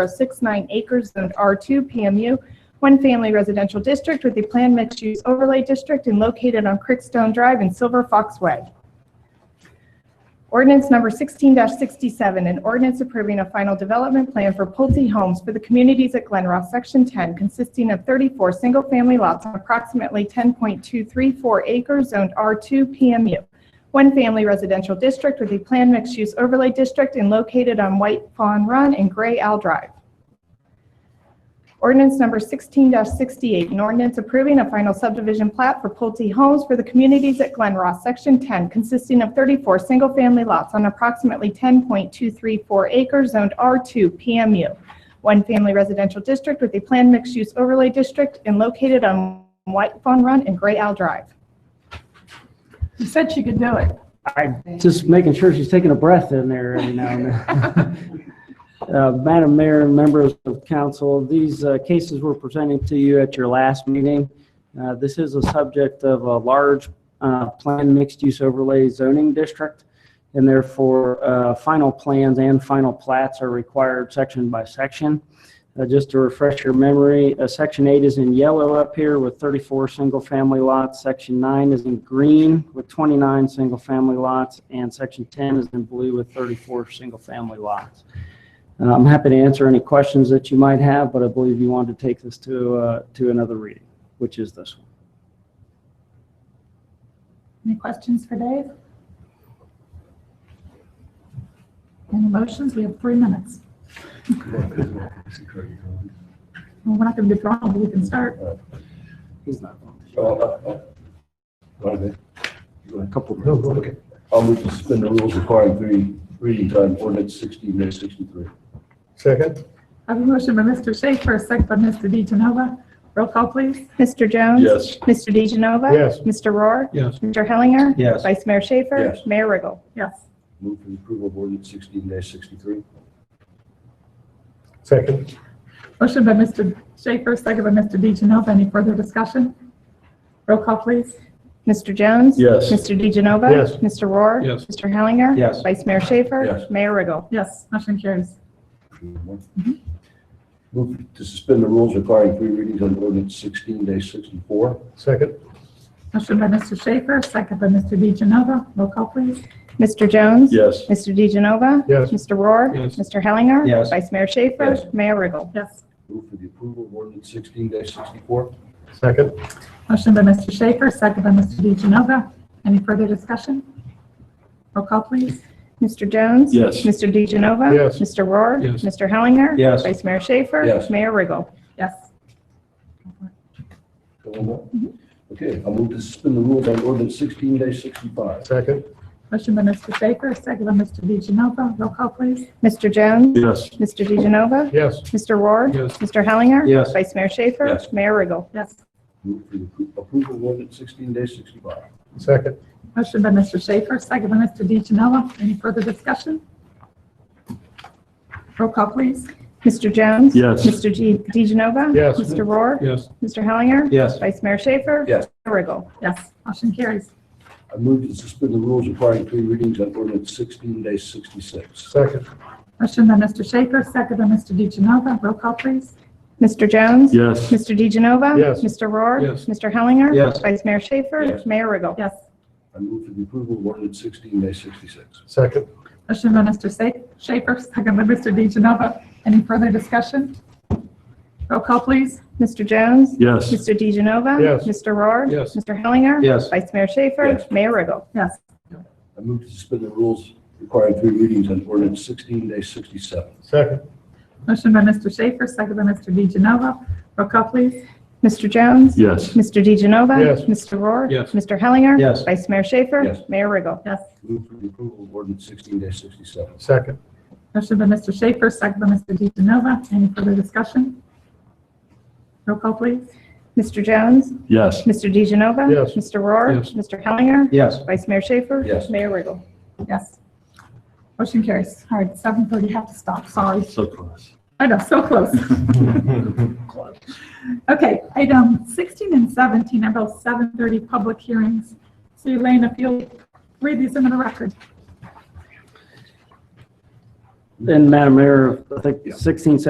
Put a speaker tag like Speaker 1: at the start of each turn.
Speaker 1: 1.069 acres zoned R2 PMU, one family residential district with a planned mixed use overlay district and located on Crickstone Drive and Silver Fox Way. Ordinance number 16-67, an ordinance approving a final development plan for Pulte Homes for the communities at Glen Ross, Section 10, consisting of 34 single-family lots on approximately 10.234 acres zoned R2 PMU, one family residential district with a planned mixed-use overlay district and located on White Fawn Run and Gray Owl Drive. Ordinance number 16-68, an ordinance approving a final subdivision plat for Pulte Homes for the communities at Glen Ross, Section 10, consisting of 34 single-family lots on approximately 10.234 acres zoned R2 PMU, one family residential district with a planned mixed-use overlay district and located on White Fawn Run and Gray Owl Drive.
Speaker 2: She said she could do it.
Speaker 3: I'm just making sure she's taking a breath in there every now and then. Uh, Madam Mayor and members of council, these uh, cases were presented to you at your last meeting. Uh, This is a subject of a large uh, planned mixed-use overlay zoning district, and therefore uh, final plans and final plats are required section by section. Uh, Just to refresh your memory, uh, Section 8 is in yellow up here with 34 single-family lots. Section 9 is in green with 29 single-family lots, and Section 10 is in blue with 34 single-family lots. Uh, I'm happy to answer any questions that you might have, but I believe you wanted to take this to, uh, to another reading, which is this one.
Speaker 2: Any questions for Dave? Any motions? We have three minutes. Well, We're not going to be drawn, but we can start.
Speaker 3: He's not on.
Speaker 4: A couple. No, go ahead. I'll move to suspend the rules requiring three readings on ordinance sixteen dash sixty-three.
Speaker 5: Second?
Speaker 2: I have a motion by Mr. Schaefer, a second by Mr. DeGenova. Roll call, please.
Speaker 1: Mr. Jones?
Speaker 4: Yes.
Speaker 1: Mr. DeGenova?
Speaker 5: Yes.
Speaker 1: Mr. Rohr?
Speaker 5: Yes.
Speaker 1: Mr. Hellinger?
Speaker 4: Yes.
Speaker 1: Vice Mayor Schaefer?
Speaker 4: Yes.
Speaker 1: Mayor Riggle?
Speaker 2: Yes.
Speaker 4: Move for the approval of ordinance sixteen dash sixty-three.
Speaker 5: Second?
Speaker 2: Motion by Mr. Schaefer, second by Mr. DeGenova. Any further discussion? Roll call, please.
Speaker 1: Mr. Jones?
Speaker 4: Yes.
Speaker 1: Mr. DeGenova?
Speaker 5: Yes.
Speaker 1: Mr. Rohr?
Speaker 5: Yes.
Speaker 1: Mr. Hellinger?
Speaker 4: Yes.
Speaker 1: Vice Mayor Schaefer?
Speaker 4: Yes.
Speaker 1: Mayor Riggle?
Speaker 2: Yes, motion carries.
Speaker 4: Move to suspend the rules requiring three readings on ordinance sixteen dash sixty-four.
Speaker 5: Second?
Speaker 2: Motion by Mr. Schaefer, second by Mr. DeGenova. Roll call, please.
Speaker 1: Mr. Jones?
Speaker 4: Yes.
Speaker 1: Mr. DeGenova?
Speaker 5: Yes.
Speaker 1: Mr. Rohr?
Speaker 5: Yes.
Speaker 1: Mr. Hellinger?
Speaker 4: Yes.
Speaker 1: Vice Mayor Schaefer?
Speaker 4: Yes.
Speaker 1: Mayor Riggle?
Speaker 2: Yes.
Speaker 4: Move for the approval of ordinance sixteen dash sixty-four.
Speaker 5: Second?
Speaker 2: Motion by Mr. Schaefer, second by Mr. DeGenova. Any further discussion? Roll call, please.
Speaker 1: Mr. Jones?
Speaker 4: Yes.
Speaker 1: Mr. DeGenova?
Speaker 5: Yes.
Speaker 1: Mr. Rohr?
Speaker 5: Yes.
Speaker 1: Mr. Hellinger?
Speaker 4: Yes.
Speaker 1: Vice Mayor Schaefer?
Speaker 4: Yes.
Speaker 1: Mayor Riggle?
Speaker 2: Yes.
Speaker 4: Okay, I'll move to suspend the rules on ordinance sixteen dash sixty-five.
Speaker 5: Second?
Speaker 2: Motion by Mr. Schaefer, second by Mr. DeGenova. Roll call, please.
Speaker 1: Mr. Jones?
Speaker 4: Yes.
Speaker 1: Mr. DeGenova?
Speaker 5: Yes.
Speaker 1: Mr. Rohr?
Speaker 5: Yes.
Speaker 1: Mr. Hellinger?
Speaker 4: Yes.
Speaker 1: Vice Mayor Schaefer?
Speaker 4: Yes.
Speaker 1: Mayor Riggle?
Speaker 2: Yes.
Speaker 4: Move for the appro- approval of ordinance sixteen dash sixty-five.
Speaker 5: Second?
Speaker 2: Motion by Mr. Schaefer, second by Mr. DeGenova. Any further discussion? Roll call, please.
Speaker 1: Mr. Jones?
Speaker 4: Yes.
Speaker 1: Mr. G- DeGenova?
Speaker 5: Yes.
Speaker 1: Mr. Rohr?
Speaker 5: Yes.
Speaker 1: Mr. Hellinger?
Speaker 4: Yes.
Speaker 1: Vice Mayor Schaefer?
Speaker 4: Yes.
Speaker 1: Mayor Riggle?
Speaker 2: Yes. Motion carries.
Speaker 4: I move to suspend the rules requiring three readings on ordinance sixteen dash sixty-six.
Speaker 5: Second?
Speaker 2: Motion by Mr. Schaefer, second by Mr. DeGenova. Roll call, please.
Speaker 1: Mr. Jones?
Speaker 4: Yes.
Speaker 1: Mr. DeGenova?
Speaker 5: Yes.
Speaker 1: Mr. Rohr?
Speaker 5: Yes.
Speaker 1: Mr. Hellinger?
Speaker 4: Yes.
Speaker 1: Vice Mayor Schaefer?
Speaker 4: Yes.
Speaker 1: Mayor Riggle?
Speaker 2: Yes.
Speaker 4: I move for the approval of ordinance sixteen dash sixty-six.
Speaker 5: Second?
Speaker 2: Motion by Mr. Sa- Schaefer, second by Mr. DeGenova. Any further discussion? Roll call, please.
Speaker 1: Mr. Jones?
Speaker 4: Yes.
Speaker 1: Mr. DeGenova?
Speaker 5: Yes.
Speaker 1: Mr. Rohr?
Speaker 5: Yes.
Speaker 1: Mr. Hellinger?
Speaker 4: Yes.
Speaker 1: Vice Mayor Schaefer?
Speaker 4: Yes.
Speaker 1: Mayor Riggle?
Speaker 2: Yes.
Speaker 4: I move to suspend the rules requiring three readings on ordinance sixteen dash sixty-seven.
Speaker 5: Second?
Speaker 2: Motion by Mr. Schaefer, second by Mr. DeGenova. Roll call, please.
Speaker 1: Mr. Jones?
Speaker 4: Yes.
Speaker 1: Mr. DeGenova?
Speaker 5: Yes.
Speaker 1: Mr. Rohr?
Speaker 5: Yes.
Speaker 1: Mr. Hellinger?
Speaker 4: Yes.
Speaker 1: Vice Mayor Schaefer?
Speaker 4: Yes.
Speaker 1: Mayor Riggle?
Speaker 2: Yes.
Speaker 4: Move for the approval of ordinance sixteen dash sixty-seven.
Speaker 5: Second?
Speaker 2: Motion by Mr. Schaefer, second by Mr. DeGenova. Any further discussion? Roll call, please.
Speaker 1: Mr. Jones?
Speaker 4: Yes.
Speaker 1: Mr. DeGenova?
Speaker 5: Yes.
Speaker 1: Mr. Rohr?
Speaker 5: Yes.
Speaker 1: Mr. Hellinger?
Speaker 4: Yes.
Speaker 1: Vice Mayor Schaefer?
Speaker 4: Yes.
Speaker 1: Mayor Riggle?
Speaker 2: Yes. Motion carries. All right, 7:30, have to stop, sorry.
Speaker 4: So close.
Speaker 2: I know, so close. Okay, item 16 and 17 are both 7:30 public hearings. So Elaine, if you'll read these into the record.
Speaker 4: And Madam Mayor, I think
Speaker 3: Yeah.
Speaker 4: 16,